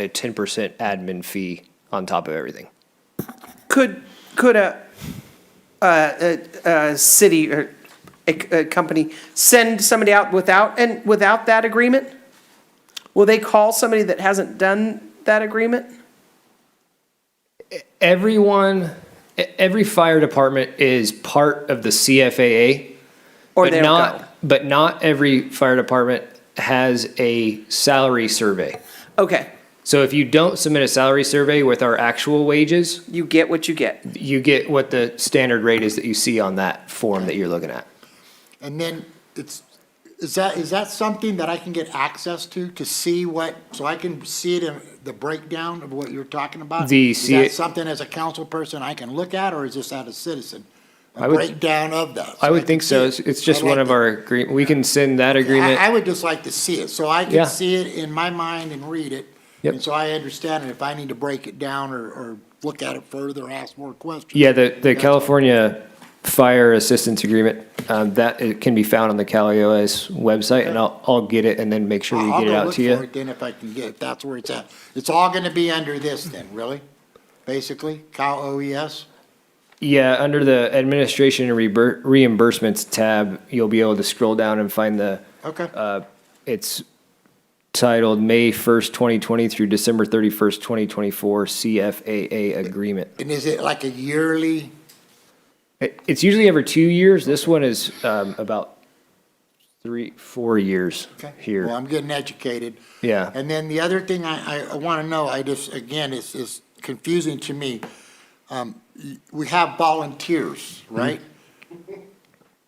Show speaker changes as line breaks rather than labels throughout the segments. a 10% admin fee on top of everything.
Could, could a, a, a- a city or a, a company send somebody out without, and without that agreement? Will they call somebody that hasn't done that agreement?
Everyone, e- every fire department is part of the CFAA,
Or
but
they don't
not,
go?
but not every fire department has a salary survey.
Okay,
So if you don't submit a salary survey with our actual wages,
you get what you get.
you get what the standard rate is that you see on that form that you're looking at.
And then it's, is that, is that something that I can get access to, to see what, so I can see it in the breakdown of what you're talking about?
The
Is
C-
that something as a council person I can look at, or is this out of citizen?
I
A
would-
breakdown of that? so
I would
can
think
see
so.
it.
It's it's just
I'd like
one of
to-
our agree, we can send that agreement.
I, I would just like to see it, so I
Yeah.
can see it in my mind and read it.
Yep.
And so I understand it, if I need to break it down or, or look at it further, ask more questions.
Yeah, the, the
That's-
California Fire Assistance Agreement, um, that it can be found on the CalEOS website, and I'll, I'll get it and then make sure we
I'll
get it
go
out
look
to
for
you.
it Then if I can get, it. that's where it's at. It's all gonna be under this then, really? Basically, Cal E OES?
Yeah, under the Administration and Rebur- Reimbursements tab, you'll be able to scroll down and find the,
Okay,
uh, it's titled May 1st, 2020 through December 31st, 2024 CFAA Agreement.
and is it like a yearly?
It- It's usually every two years. This one is um, about three, four years
okay.
here.
Well, I'm getting educated.
Yeah.
And then the other thing I, I, I wanna know, I just, again, it's, it's confusing to me. Um, y- We have volunteers,
Hmm.
right?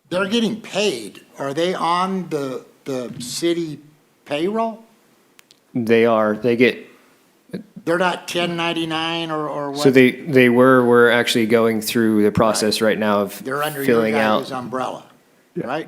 They're getting paid. Are they on the, the city payroll?
They are, they get
They're not ten ninety-nine or, or what?
So they, they were, we're actually going through the process right now of
They're under your
filling out.
guys' umbrella, right?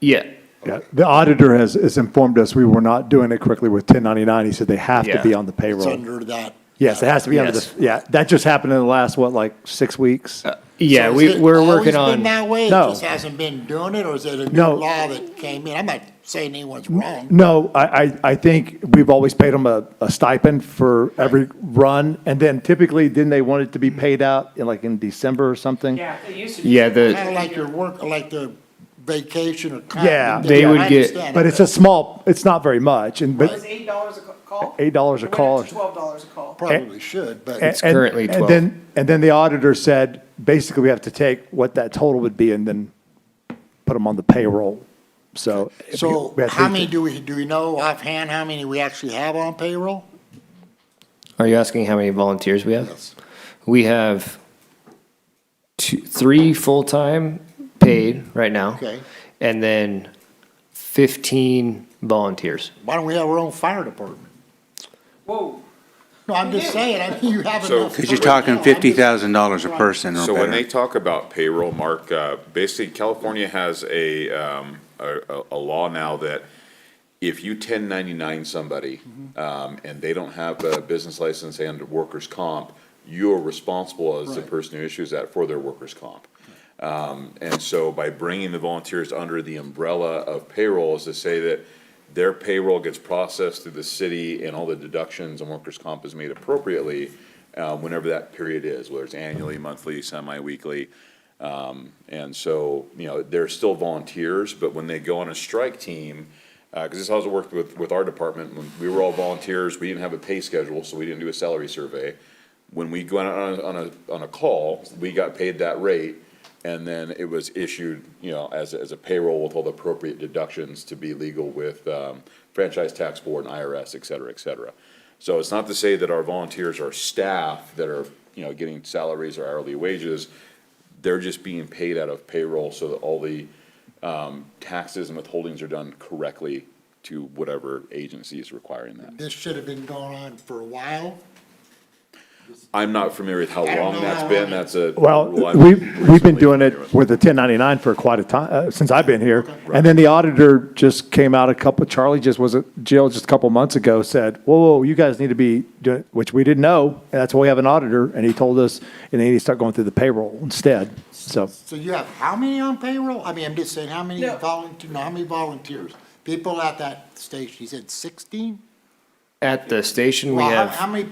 Yeah,
Yeah, the auditor has, has informed us we were not doing it correctly with 1099. He said they have to
Yeah.
be on the
It's
payroll.
under that.
Yes, it has to be under the,
Yes.
yeah, that just happened in the last, what, like six weeks?
yeah,
So
we,
has it
we're working
Always
on,
been that way? It
No.
just hasn't been doing it, or is it a new
No.
law that came in? I'm not saying anyone's wrong.
No, I, I, I think we've always paid them a, a stipend for every run. And then typically, didn't they want it to be paid out in like in December or something?
Yeah, it used to be.
yeah,
Kind
the,
of like your work, like the vacation or. comp
Yeah.
and
They
things.
would
I
get-
understand
But
it,
it's a small, it's not very much and,
It was
but,
eight dollars a ca- call?
$8 a
It went up
call.
to Twelve dollars a call.
Probably should, but
and-
it's
and-
currently 12.
And then, and then the auditor said, basically, we have to take what that total would be and then put them on the payroll. So. if we-
so
eh, we have to-
how many do we, do we know offhand how many we actually have on payroll?
are you asking how many volunteers we have?
Yes.
We have two, three full-time paid right now.
Okay.
And then fifteen volunteers.
Why don't we have our own fire department?
Whoa.
No, I'm just saying, I mean, you have
So-
enough.
Because you're
personnel.
talking
I'm just-
fifty thousand dollars a person or
So when they
better.
talk about payroll, Mark, uh, basically California has a, um, a, a- a law now that if you ten ninety-nine somebody, um, and they don't have a business license and workers' comp, you're responsible as the
Right.
person who issues that for their workers' comp. Um, and so by bringing the volunteers under the umbrella of payroll is to say that their payroll gets processed through the city and all the deductions and workers' comp is made appropriately, uh, whenever that period is, whether it's annually, monthly, semi-weekly. Um, and so, you know, they're still volunteers, but when they go on a strike team, uh 'cause cause this is how it worked with, with our department, when we were all volunteers, we didn't have a pay schedule, so we didn't do a salary survey. When we go on, a- on a, on a call, we got paid that rate, and then it was issued, you know, as, a- as a payroll with all the appropriate deductions to be legal with, um, franchise tax board and IRS, et cetera, et cetera. So it's not to say that our volunteers are staff that are, you know, getting salaries or hourly wages. They're just being paid out of payroll so that all the, um, taxes and withholdings are done correctly to whatever agency is requiring that.
This should have been going on for a while.
I'm not familiar with how
don't
long
know
that's
how
been,
long.
that's a.
Well,
rule I'm
we, we've been
recently
doing
familiar
it
with.
with the 1099 for quite a time, since I've been here. And then the auditor just came out a couple, Charlie just was at jail just a couple months ago, said, whoa, whoa, you guys need to be doing, which we didn't know, and that's why we have an auditor, and he told us, and then he started going through the payroll instead, so.
So you have how many on payroll? I mean, I'm just saying, how many
No.
volunteer, no, how many volunteers? People at that station, you said sixteen?
At the station, we
Well, how-
have.
How many